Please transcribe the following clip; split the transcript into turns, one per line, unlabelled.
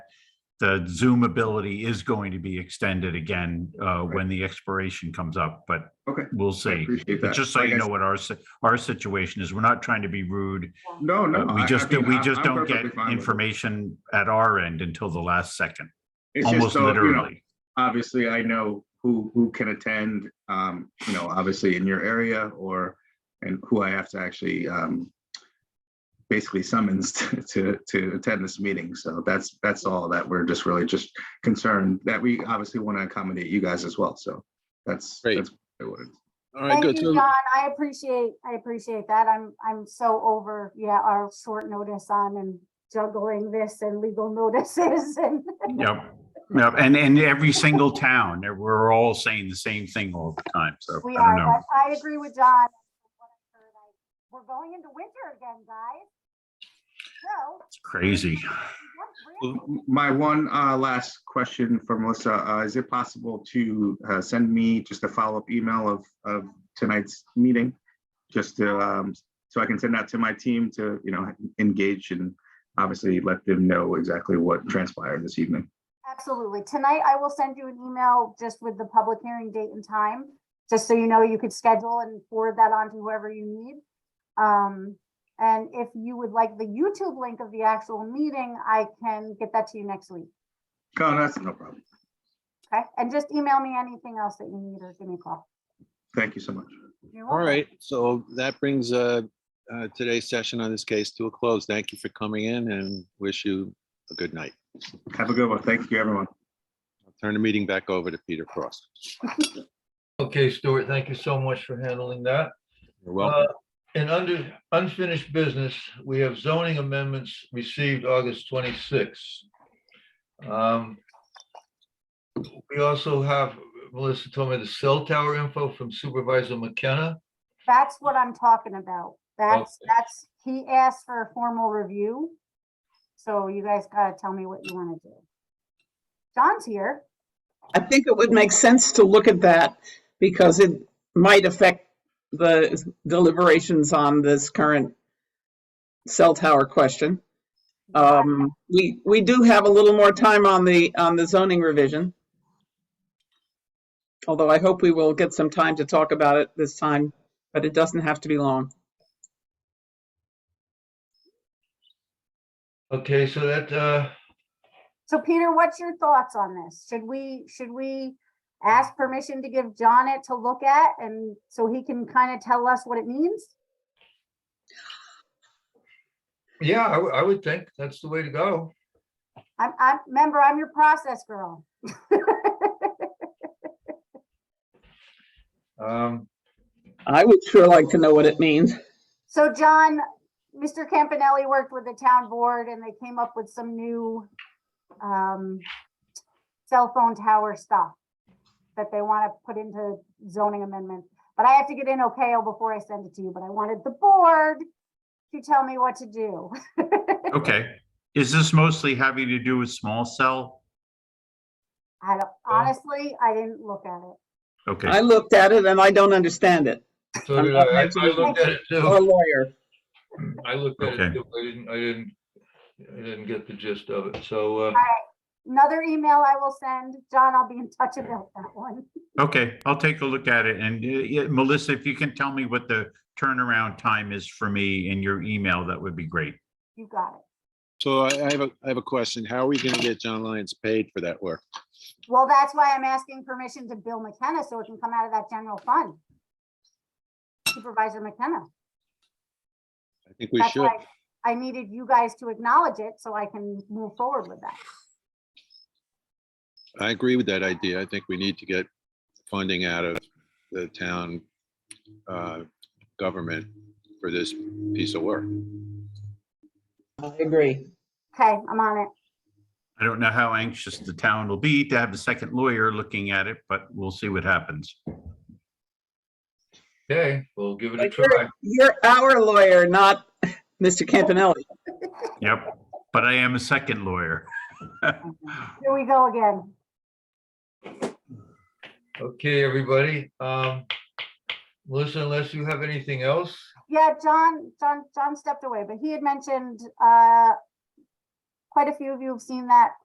the Zoom ability is going to be extended again uh, when the expiration comes up, but
Okay.
we'll
I
see.
Appreciate
But
that.
just so you
Like I
know what our, si- our situation is, we're not trying to be rude.
s- No, no.
Uh,
I-
We
I
just,
mean,
we
I'm-
just
I'm
don't get
perfectly fine with it.
information at our end until the last second,
It's just
almost
so, you know,
literally.
Obviously, I know who, who can attend, um, you know, obviously in your area or, and who I have to actually, um, basically summons to- to, to attend this meeting. So that's, that's all that we're just really just concerned that we obviously want to accommodate you guys as well. So that's,
Great.
that's what it is.
All right, good.
Thank you,
So,
John. I appreciate, I appreciate that. I'm, I'm so over, yeah, our short notice on and juggling this and legal notices and
Yep. Yep. And, and every single town, and we're all saying the same thing all the time. So
we
I don't know.
are, but I agree with John. We're going into winter again, guys. So.
It's crazy.
we
Well,
got
My one uh, last question for Melissa, uh, is it possible to uh, send me just a follow-up email of, of tonight's meeting? Just to, um, so I can send that to my team to, you know, engage and obviously let them know exactly what transpired this evening.
Absolutely. Tonight, I will send you an email just with the public hearing date and time, just so you know you could schedule and forward that on to whoever you need. Um, and if you would like the YouTube link of the actual meeting, I can get that to you next week.
Oh, that's no problem.
Okay? And just email me anything else that you need or give me a call.
Thank you so much.
You're
all
welcome.
right, so that brings uh, uh, today's session on this case to a close. Thank you for coming in and wish you a good night.
Have a good one. Thank you, everyone.
I'll Turn the meeting back over to Peter Cross.
Okay, Stuart, thank you so much for handling that.
You're welcome.
And under unfinished business, we have zoning amendments received August 26. Um, We also have, Melissa told me the cell tower info from Supervisor McKenna.
That's what I'm talking about. That's,
Okay.
that's, he asked for a formal review. So you guys gotta tell me what you wanna do. John's here.
I think it would make sense to look at that because it might affect the deliberations on this current cell tower question. Um, we, we do have a little more time on the, on the zoning revision. Although I hope we will get some time to talk about it this time, but it doesn't have to be long.
Okay, so that, uh,
So Peter, what's your thoughts on this? Should we, should we ask permission to give John it to look at and so he can kind of tell us what it means?
yeah, I would- I would think that's the way to go.
I'm, I'm, remember, I'm your process girl.
Um,
I would sure like to know what it means.
So John, Mr. Campanelli worked with the town board and they came up with some new um, cell phone tower stuff that they want to put into zoning amendments. But I have to get in OKO before I send it to you, but I wanted the board to tell me what to do.
Okay. Is this mostly having to do with small cell?
I don't, honestly, I didn't look at it.
Okay.
I looked at it and I don't understand it,
So did I, I I looked at it
or a
too.
lawyer.
I looked at it
Okay.
too. I didn't, I didn't, I didn't get the gist of it. So, uh,
Another email I will send. John, I'll be in touch about that one.
Okay, I'll take a look at it. And uh, yeah, Melissa, if you can tell me what the turnaround time is for me in your email, that would be great.
You got it.
So I I have a, I have a question. How are we going to get John Lyons paid for that work?
Well, that's why I'm asking permission to Bill McKenna so it can come out of that general fund. Supervisor McKenna.
I think we
That's
should.
why I needed you guys to acknowledge it so I can move forward with that.
I agree with that idea. I think we need to get funding out of the town uh, government for this piece of work.
I agree.
Okay, I'm on it.
I don't know how anxious the town will be to have a second lawyer looking at it, but we'll see what happens.
okay, we'll give it a
But you're-
try.
You're our lawyer, not Mr. Campanelli.
Yep, but I am a second lawyer.
Here we go again.
Okay, everybody. Um, Melissa, unless you have anything else,
Yeah, John, John, John stepped away, but he had mentioned, uh, quite a few of you have seen that